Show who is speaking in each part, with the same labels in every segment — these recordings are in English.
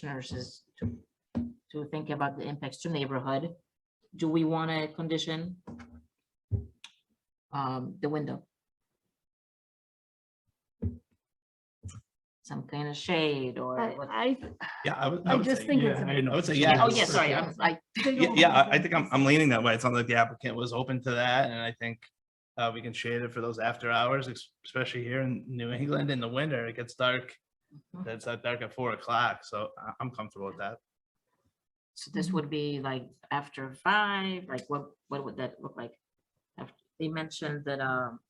Speaker 1: commissioners is to, to think about the impacts to neighborhood. Do we want to condition um, the window? Some kind of shade or,
Speaker 2: I,
Speaker 1: what-
Speaker 2: I,
Speaker 3: Yeah, I would,
Speaker 2: I
Speaker 3: I would
Speaker 2: just
Speaker 3: say-
Speaker 2: think it's
Speaker 3: yeah,
Speaker 2: a-
Speaker 3: I know, I would say,
Speaker 1: yeah,
Speaker 3: yeah.
Speaker 1: oh, yeah, sorry, I'm, I,
Speaker 3: Yeah, yeah, I, I think I'm, I'm leaning that way. It sounds like the applicant was open to that, and I think uh, we can shade it for those after hours, ex- especially here in New England in the winter, it gets dark.
Speaker 2: Mm-hmm.
Speaker 1: Mhm.
Speaker 3: It's uh, dark at four o'clock, so I, I'm comfortable with that.
Speaker 1: so this would be like after five, like what, what would that look like? Af- They mentioned that um,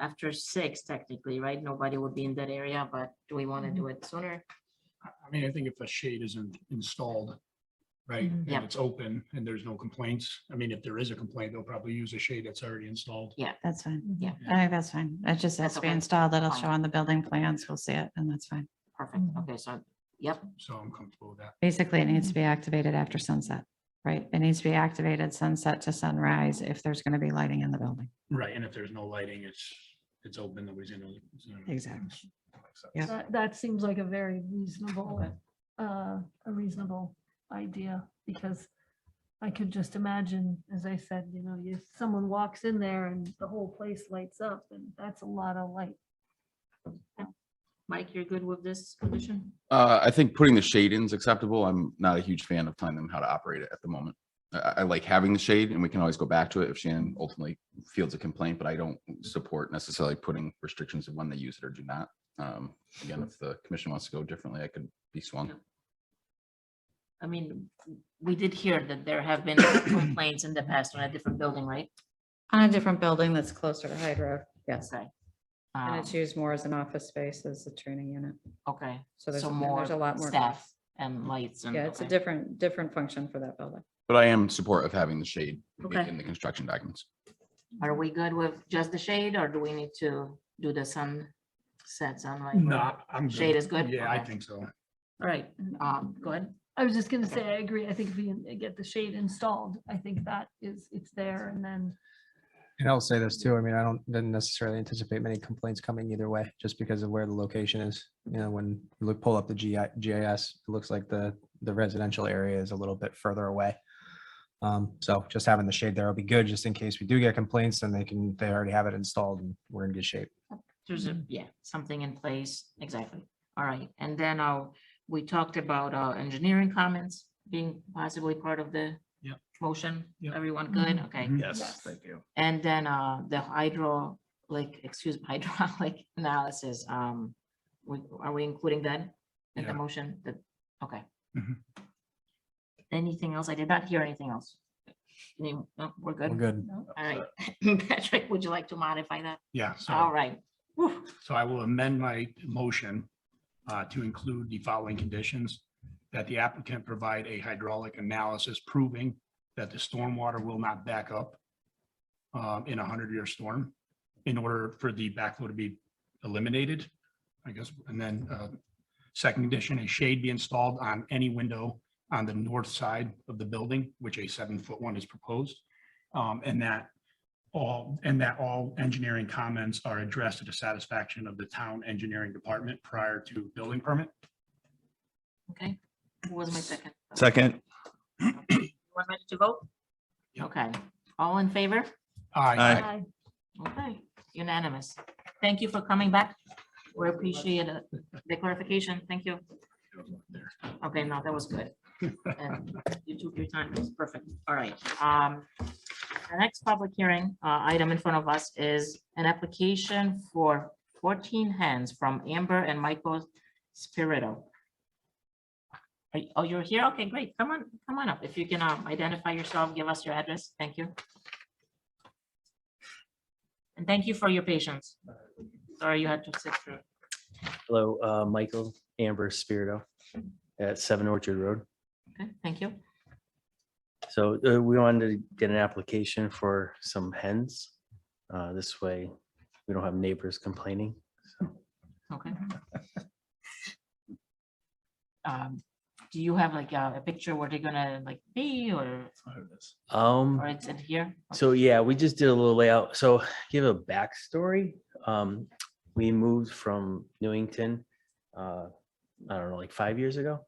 Speaker 1: after six technically, right? Nobody would be in that area, but do we want to
Speaker 2: Mm-hmm.
Speaker 1: do it sooner?
Speaker 4: I I mean, I think if a shade isn't installed, right,
Speaker 2: Mhm.
Speaker 4: and
Speaker 1: Yeah.
Speaker 4: it's open and there's no complaints, I mean, if there is a complaint, they'll probably use a shade that's already installed.
Speaker 2: That's fine.
Speaker 1: Yeah.
Speaker 2: I think that's fine. That just
Speaker 1: That's
Speaker 2: has to be
Speaker 1: okay.
Speaker 2: installed. That'll
Speaker 1: Fine.
Speaker 2: show on the building plans. We'll see it and that's fine.
Speaker 1: Perfect,
Speaker 2: Mhm.
Speaker 1: okay, so, yep,
Speaker 4: So I'm comfortable with that.
Speaker 2: Basically, it needs to be activated after sunset, right? It needs to be activated sunset to sunrise if there's going to be lighting in the building.
Speaker 4: Right, and if there's no lighting, it's, it's open, nobody's gonna. it's gonna-
Speaker 2: Exactly.
Speaker 3: Makes sense.
Speaker 2: Yeah.
Speaker 5: That, that seems like a very reasonable,
Speaker 1: Okay.
Speaker 5: uh, a reasonable idea, because I could just imagine, as I said, you know, if someone walks in there and the whole place lights up, and that's a lot of light.
Speaker 1: Mike, you're good with this condition?
Speaker 6: Uh, I think putting the shade in is acceptable. I'm not a huge fan of telling them how to operate it at the moment. I- I, I like having the shade and we can always go back to it if Shannon ultimately fields a complaint, but I don't support necessarily putting restrictions of when they use it or do not. Um, again, if the commission wants to go differently, I could be swung.
Speaker 1: I mean, we did hear that there have been complaints in the past on a different building, right?
Speaker 2: On a different building that's closer to Hyde Road. Yes.
Speaker 1: Okay.
Speaker 2: And
Speaker 1: Um,
Speaker 2: it's used more as an office space as a training unit.
Speaker 1: Okay,
Speaker 2: So there's,
Speaker 1: so
Speaker 2: and there's a
Speaker 1: more
Speaker 2: lot more.
Speaker 1: staff and lights and.
Speaker 2: Yeah, it's a
Speaker 1: okay.
Speaker 2: different, different function for that building.
Speaker 6: But I am in support of having the shade
Speaker 1: Okay.
Speaker 6: in the construction documents.
Speaker 1: Are we good with just the shade or do we need to do the sunset sunlight?
Speaker 4: No, I'm.
Speaker 1: Shade is good?
Speaker 4: Yeah, I
Speaker 1: Okay.
Speaker 4: think so.
Speaker 1: All right, um, go ahead.
Speaker 5: I was just gonna say, I agree, I think if we get the shade installed, I think that is, it's there, and then,
Speaker 7: And I'll say this too, I mean, I don't, didn't necessarily anticipate many complaints coming either way, just because of where the location is. You know, when you look, pull up the GI, GIS, it looks like the, the residential area is a little bit further away. Um, so just having the shade there will be good, just in case we do get complaints, then they can, they already have it installed and we're in good shape.
Speaker 1: There's
Speaker 4: Mm-hmm.
Speaker 1: a, yeah, something in place, exactly. All right, and then uh, we talked about uh, engineering comments being possibly part of the
Speaker 4: Yep.
Speaker 1: motion.
Speaker 4: Yep. Mm-hmm.
Speaker 1: Everyone good? Okay.
Speaker 2: Mm-hmm.
Speaker 3: Yes,
Speaker 5: Yes.
Speaker 3: thank you.
Speaker 1: And then uh, the hydro, like, excuse me, hydraulic analysis, um, we, are we including that in
Speaker 4: Yeah.
Speaker 1: the motion? The, okay.
Speaker 4: Mhm.
Speaker 1: Anything else? I did not hear anything else. Any- No, we're
Speaker 7: We're
Speaker 1: good.
Speaker 7: good.
Speaker 1: All right. Patrick, would you like to modify that?
Speaker 4: Yeah, so.
Speaker 1: All right. Whew.
Speaker 4: So I will amend my motion uh, to include the following conditions. That the applicant provide a hydraulic analysis proving that the stormwater will not back up um, in a hundred-year storm in order for the backflow to be eliminated, I guess. And then uh, second condition, a shade be installed on any window on the north side of the building, which a seven-foot one is proposed. Um, And that all, and that all engineering comments are addressed to the satisfaction of the town engineering department prior to building permit.
Speaker 1: Okay. Who was my second?
Speaker 3: Second.
Speaker 1: You Want ready to vote?
Speaker 4: Yep.
Speaker 1: Okay. All in favor?
Speaker 5: I
Speaker 3: Aye.
Speaker 1: Okay, unanimous. Thank you for coming back. We appreciate it. the clarification. Thank you. Okay, no, that was good. And You took your time. It was perfect. All right. Um, The next public hearing uh, item in front of us is an application for 14 hands from Amber and Michael Spirito. Are you- Oh, you're here? Okay, great. Come on, come on up. If you can um, identify yourself, give us your address. Thank you. And thank you for your patience. Sorry you had to sit through.
Speaker 8: Hello, uh, Michael Amber Spirito at Seven Orchard Road.
Speaker 1: Okay, thank you.
Speaker 8: So uh, we wanted to get an application for some hens. Uh, This way, we don't have neighbors complaining.
Speaker 1: Okay. Um, do you have like a a picture where they're gonna like be or,
Speaker 8: Um,
Speaker 1: or it's in here?
Speaker 8: So yeah, we just did a little layout. So give a backstory. Um, we moved from Newington, uh, I don't know, like five years ago.